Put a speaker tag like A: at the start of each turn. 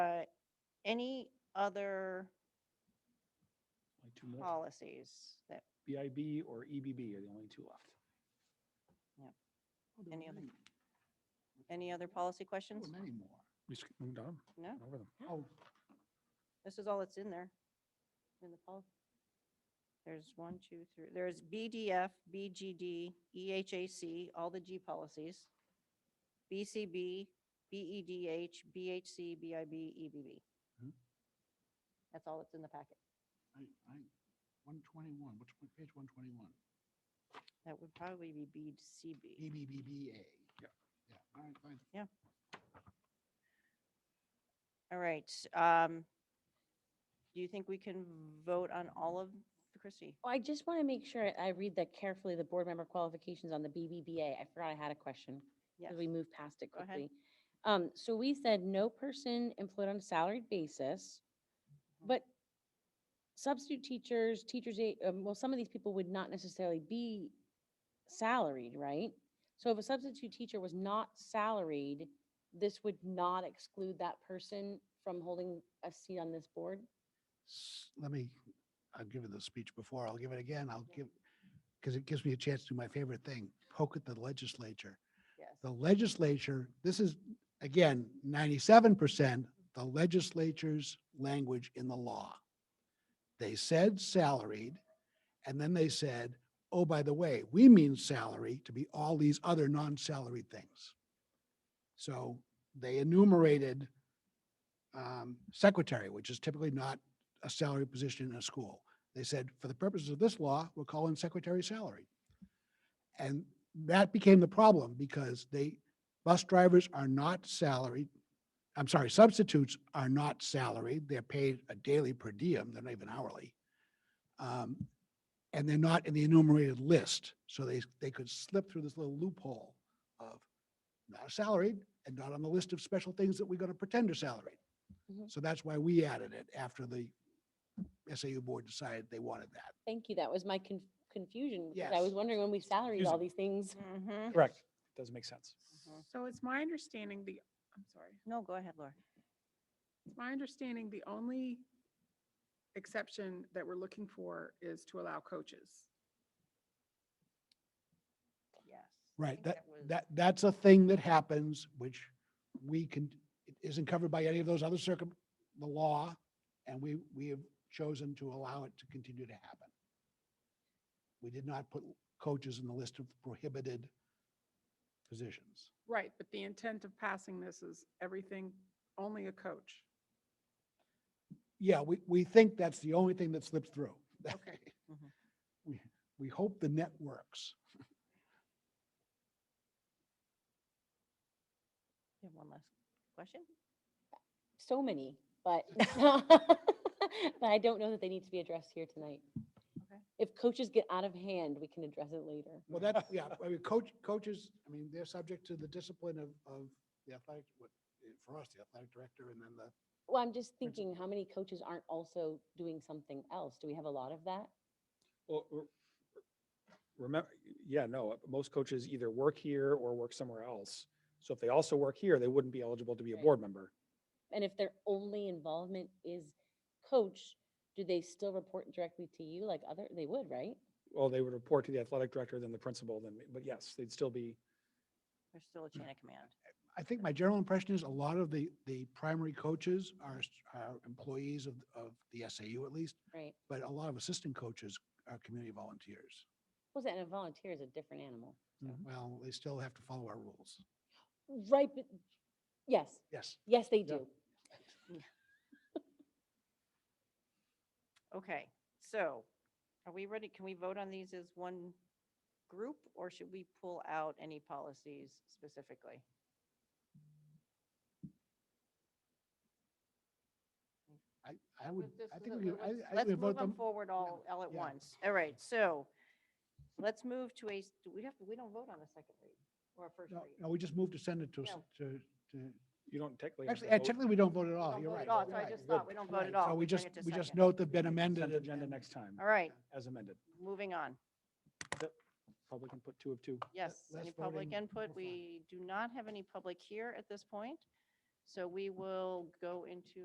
A: uh, any other
B: Only two
A: Oh.
B: more.
A: policies that,
B: BIB or EBB are the only two left.
A: Yep.
B: Oh, there
A: Any
B: were
A: other
B: many.
A: any other
B: There
A: policy questions?
B: were Many more.
C: We just moved on,
A: No,
C: went over them.
B: Oh,
A: this is all that's in there, in the pol. There's one, two, three, there's BDF, BGD, EHAC, all the G policies, BCB, E, BEDH, BHC, BIB, EBB.
B: Mhm.
A: E, That's all that's in the packet.
B: I, I, one twenty-one, which, one- page one twenty-one,
A: That would probably be
C: E
A: BCB.
B: EBBBA.
C: Yeah.
B: Yeah, all right, fine.
A: All right. um, Do you think we can vote on all of, Christie?
D: Oh, I just want to make sure I read that carefully, the board member qualifications on the BBBA. I forgot I had a question. 'cause
A: Yes.
D: We moved past it
A: Go ahead.
D: quickly. Um, so we said no person employed on a salaried basis,
A: Mhm.
D: but substitute teachers, teachers, aid- um, well, some of these people would not necessarily be salaried, right? So if a substitute teacher was not salaried, this would not exclude that person from holding a seat on this board?
B: S- Let me, I've given the speech before, I'll give it again, I'll give, because it gives me a chance to do my favorite thing, poke at the legislature.
A: Yes.
B: the legislature, this is, again, ninety-seven percent, the legislature's language in the law. They said salaried, and then they said, oh, by the way, we mean salary to be all these other non-salaried things. So they enumerated um, secretary, which is typically not a salary position in a school. They said, for the purposes of this law, we're calling secretary salary. And that became the problem because they, bus drivers are not salaried. I'm sorry, substitutes are not salaried. They're paid a daily per diem. They're not even hourly. Um, And they're not in the enumerated list. So they, they could slip through this little loophole of not salaried and not on the list of special things that we're going to pretend are salaried.
D: Mhm.
B: So that's why we added it after the SAU board decided they wanted that.
D: Thank you. That was my con- confusion. because I
B: Yes.
D: was wondering when we salaried all
C: confusing.
D: these things.
A: Mm-hmm.
C: Correct. Doesn't make sense.
A: Mhm.
E: So it's my understanding the, I'm sorry,
A: No, go ahead, Laura.
E: it's my understanding the only exception that we're looking for is to allow coaches.
A: Yes. I
B: Right,
A: think
B: that,
A: was-
B: that, that's a thing that happens, which we can, it isn't covered by any of those other circum, the law, and we, we have chosen to allow it to continue to happen. We did not put coaches in the list of prohibited positions.
E: Right, but the intent of passing this is everything, only a coach.
B: Yeah, we, we think that's the only thing that slips through.
E: Okay.
A: Mhm.
B: We, we hope the net works.
A: You have one last question?
D: So many, but, but I don't know that they need to be addressed here tonight.
A: Okay.
D: If coaches get out of hand, we can address it later.
B: Well, that's, yeah, I mean, coach, coaches, I mean, they're subject to the discipline of, of the athletic, what, eh, for us, the athletic director and then the,
D: Well, I'm just
B: Principal.
D: thinking, how many coaches aren't also doing something else? Do we have a lot of that?
C: Well, remember, yeah, no, uh, most coaches either work here or work somewhere else. So if they also work here, they wouldn't be eligible to be a
D: Right.
C: board member.
D: And if their only involvement is coach, do they still report directly to you like other, they would, right?
C: Well, they would report to the athletic director, then the principal, then, me, but yes, they'd still be,
A: There's still a chain of command.
B: I think my general impression is a lot of the, the primary coaches are, s- are employees of, of the SAU at least,
D: Right.
B: but a lot of assistant coaches are community volunteers.
D: Was that, and a volunteer is a different animal. Mhm.
B: Well, they still have to follow our rules.
D: Right, but, yes,
B: Yes.
D: yes, they
B: Yeah.
D: do.
A: Okay, so are we ready? Can we vote on these as one group or should we pull out any policies specifically?
B: I, I would,
A: Let's just-
B: I think
A: let-
B: we, could-
A: let-
B: I,
A: let's-
B: I think
A: Let's
B: we
A: move
B: vote
A: them
B: them.
A: forward all, all at
B: yeah.
A: once. All right, so let's move to a, s- do we have, to- we don't vote on a second read or a first
B: No,
A: read.
B: no, we just moved to send it to, s-
A: No.
B: to, to,
C: you don't technically. have
B: actually,
C: to
B: eh,
C: vote.
B: technically, we don't vote at
A: We
B: all.
A: don't
B: You're
A: vote
B: right.
A: at all,
B: you're
A: Oh, so I
B: right.
A: just
C: Good.
A: thought we don't vote at
B: Right,
A: all.
B: So we
A: bring
B: just,
A: it to
B: we just
A: second.
B: note they've been
C: Consent
B: amended. and-
C: agenda
B: and-
C: next time,
A: All right,
C: as amended.
A: moving on.
C: Public can put two of two.
A: Yes,
B: less
A: any public
B: voting,
A: input?
B: we're
A: We
B: fine.
A: do not have any public here at this point. So we will go into